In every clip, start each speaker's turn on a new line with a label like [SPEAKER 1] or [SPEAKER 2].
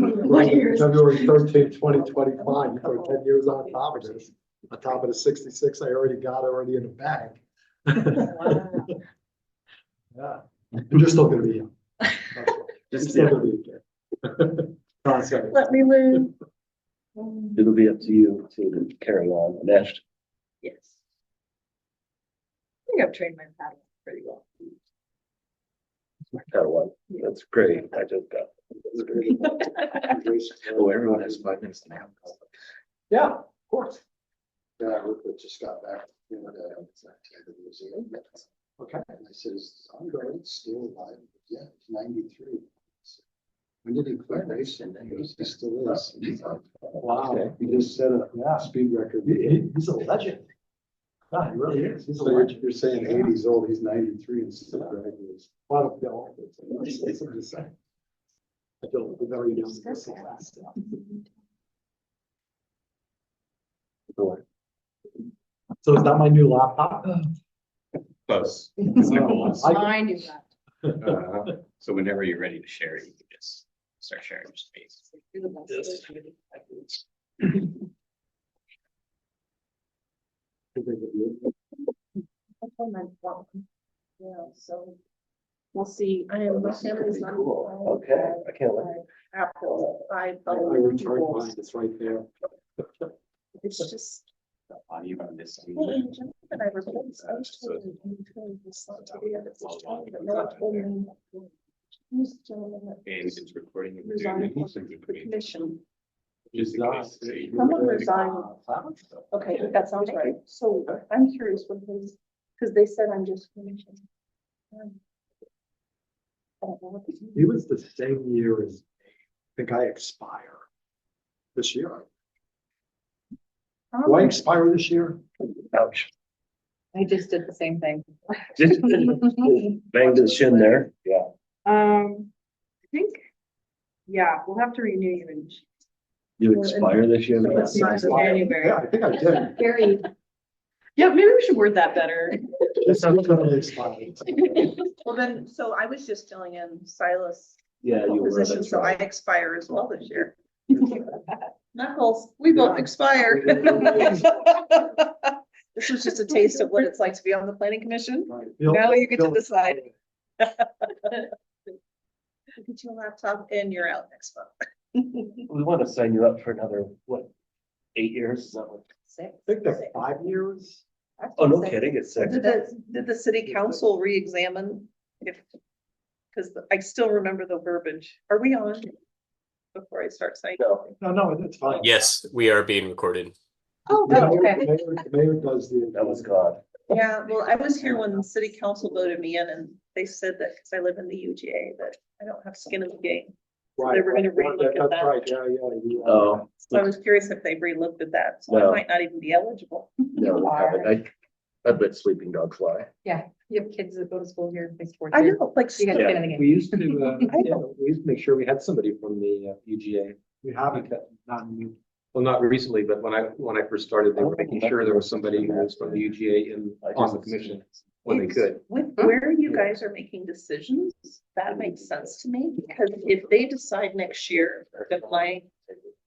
[SPEAKER 1] What year is-
[SPEAKER 2] February thirteenth, twenty twenty-five, for ten years on top of this, on top of the sixty-six I already got already in the bag. Yeah, and you're still gonna be young. That's all. You're
[SPEAKER 3] Just,
[SPEAKER 2] still
[SPEAKER 3] yeah,
[SPEAKER 2] gonna be a kid. Don't say it.
[SPEAKER 1] Let me live.
[SPEAKER 3] it'll be up to you to carry on, and that's,
[SPEAKER 1] Yes. I think I've trained my paddle pretty well.
[SPEAKER 3] that one, that's great, I just got. that's great. Oh, everyone has five minutes now.
[SPEAKER 2] Yeah, of course. Yeah, I worked with- just got back, you know, the, the museum. Okay. And I says, I'm going, still alive, yeah, ninety-three. When did he quit racing? And he goes, he still is. And he's like, Wow, he just set a yeah, speed record. he's a legend. God, he really is. He's a legend. You're saying eighties old, he's ninety-three and still driving this. What a bill. It's insane. I don't, we've already done this last. So is that my new laptop?
[SPEAKER 4] Close. It's like goals.
[SPEAKER 2] I-
[SPEAKER 1] I knew that.
[SPEAKER 4] Uh, So whenever you're ready to share, you can just start sharing your space.
[SPEAKER 1] You're the best.
[SPEAKER 4] Yes.
[SPEAKER 5] That's what my phone. Yeah, so. We'll see, I am, my
[SPEAKER 3] This is
[SPEAKER 5] family's
[SPEAKER 3] pretty
[SPEAKER 5] not.
[SPEAKER 3] cool. Okay, I can't wait.
[SPEAKER 5] Apple, I
[SPEAKER 2] I
[SPEAKER 5] follow
[SPEAKER 2] returned mine,
[SPEAKER 5] people's,
[SPEAKER 2] it's right there.
[SPEAKER 5] it's just.
[SPEAKER 4] On you on this.
[SPEAKER 5] Well, in general, I replaced, I was told in between this lot to the other, it's trying, but no one told me. Who's the gentleman that
[SPEAKER 4] And it's recording. and we're doing
[SPEAKER 5] resigned
[SPEAKER 4] it.
[SPEAKER 5] from the
[SPEAKER 4] Just
[SPEAKER 5] commission?
[SPEAKER 4] in case they-
[SPEAKER 5] Someone resigned. Okay, that sounds right, so I'm curious what his, because they said I'm just commission. Um, I don't know what the.
[SPEAKER 2] He was the same year as, I think I expire this year.
[SPEAKER 5] Oh,
[SPEAKER 2] Do I expire this year?
[SPEAKER 3] Ouch.
[SPEAKER 1] I just did the same thing.
[SPEAKER 3] Just Banged his shin there, yeah.
[SPEAKER 1] Um, I think, yeah, we'll have to renew you in
[SPEAKER 3] You expire this year.
[SPEAKER 1] Let's see.
[SPEAKER 3] man.
[SPEAKER 2] Yeah, I think I did.
[SPEAKER 5] Very.
[SPEAKER 1] Yeah, maybe we should word that better.
[SPEAKER 2] This is gonna expire.
[SPEAKER 5] Well, then, so I was just filling in Silas'
[SPEAKER 3] Yeah, you were,
[SPEAKER 5] position,
[SPEAKER 3] that's
[SPEAKER 5] so I
[SPEAKER 3] right.
[SPEAKER 5] expire as well this year. Knuckles, we
[SPEAKER 2] Yeah.
[SPEAKER 5] both expire. This was just a taste of what it's like to be on the planning commission. Now you get to decide. Get your laptop and you're out next month.
[SPEAKER 3] We want to sign you up for another, what, eight years? Is that what-
[SPEAKER 5] Sick.
[SPEAKER 2] I think that's five years.
[SPEAKER 3] Oh, no kidding, it's six.
[SPEAKER 5] Did the, did the city council reexamine if? Because I still remember the verbiage. Are we on? Before I start saying.
[SPEAKER 3] No.
[SPEAKER 2] No, no, it's fine.
[SPEAKER 6] Yes, we are being recorded.
[SPEAKER 5] Oh,
[SPEAKER 2] The
[SPEAKER 5] good,
[SPEAKER 2] mayor-
[SPEAKER 5] okay.
[SPEAKER 2] the Mayor the mayor does the.
[SPEAKER 3] That was God.
[SPEAKER 5] Yeah, well, I was here when the city council voted me in and they said that because I live in the UGA, that I don't have skin in the game.
[SPEAKER 2] Right,
[SPEAKER 5] They were gonna
[SPEAKER 2] right,
[SPEAKER 5] relook at
[SPEAKER 2] That's
[SPEAKER 5] that.
[SPEAKER 2] right, yeah, yeah. you are.
[SPEAKER 3] Oh,
[SPEAKER 5] So I was curious if they relooked at that, so
[SPEAKER 3] No.
[SPEAKER 5] I might not even be eligible.
[SPEAKER 3] no, we haven't. I, I bet sleeping dog fly.
[SPEAKER 1] You have kids that go to school here, they support
[SPEAKER 5] I know, like,
[SPEAKER 1] You gotta get in the game.
[SPEAKER 7] We used to, uh,
[SPEAKER 5] I
[SPEAKER 7] yeah, we used to make sure we had somebody from the uh, UGA.
[SPEAKER 2] We haven't, not new.
[SPEAKER 7] Well, not recently, but when I, when I first started, they were making sure there was somebody who was from the UGA in, on the commission when they could.
[SPEAKER 5] with where you guys are making decisions, that makes sense to me, because if they decide next year that my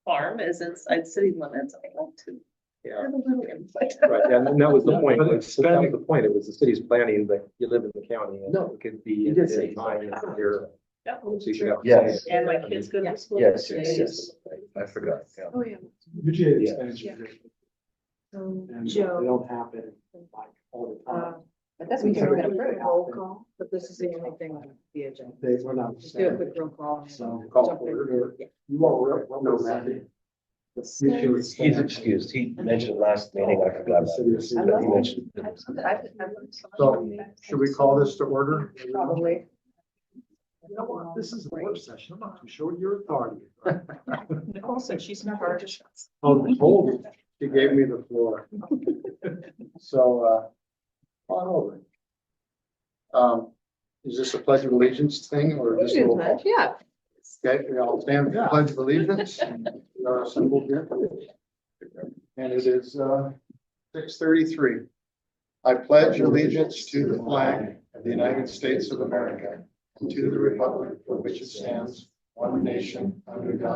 [SPEAKER 5] farm is inside city limits, I want to.
[SPEAKER 7] Yeah.
[SPEAKER 5] have a little input.
[SPEAKER 7] Right, and and that was the point,
[SPEAKER 2] But
[SPEAKER 7] like,
[SPEAKER 2] it's
[SPEAKER 7] that was
[SPEAKER 2] spending-
[SPEAKER 7] the point, it was the city's planning, but you live in the county and
[SPEAKER 3] No,
[SPEAKER 7] it could be
[SPEAKER 3] you
[SPEAKER 7] at
[SPEAKER 3] did say
[SPEAKER 7] any time in the year.
[SPEAKER 5] That
[SPEAKER 7] So
[SPEAKER 5] was
[SPEAKER 7] you should
[SPEAKER 5] true.
[SPEAKER 7] have.
[SPEAKER 3] Yes.
[SPEAKER 5] And my kids go to school.
[SPEAKER 3] Yes,
[SPEAKER 5] in the
[SPEAKER 3] yes,
[SPEAKER 5] city.
[SPEAKER 3] yes. I forgot. yeah.
[SPEAKER 5] Oh, yeah.
[SPEAKER 2] UGA
[SPEAKER 3] Yeah.
[SPEAKER 2] expansion.
[SPEAKER 5] Um,
[SPEAKER 2] And they
[SPEAKER 5] Joe.
[SPEAKER 2] don't happen like all the time.
[SPEAKER 1] But Uh, that's
[SPEAKER 2] We
[SPEAKER 1] what you're
[SPEAKER 2] can
[SPEAKER 1] gonna
[SPEAKER 2] do
[SPEAKER 1] prove.
[SPEAKER 2] a roll call,
[SPEAKER 1] But this is the only thing on the agenda.
[SPEAKER 2] They were not.
[SPEAKER 1] Just do a quick roll call.
[SPEAKER 2] So.
[SPEAKER 1] Jump in.
[SPEAKER 2] You are representing.
[SPEAKER 3] He's excused. He mentioned last meeting, I forgot about it. He mentioned it.
[SPEAKER 2] So, Should we call this to order?
[SPEAKER 1] Probably.
[SPEAKER 2] You know what? This is a work session. I'm not too sure your authority.
[SPEAKER 5] Nicole said she's not hard to shut.
[SPEAKER 2] Oh, Nicole, she gave me the floor. So, uh, on over. Um, is this a pledge of allegiance thing or just a roll call?
[SPEAKER 1] Yeah.
[SPEAKER 2] Okay, we all stand for the pledge of allegiance. We are assembled here. And it is uh, six thirty-three. I pledge allegiance to the flag of the United States of America and to the republic for which it stands, one nation, under God,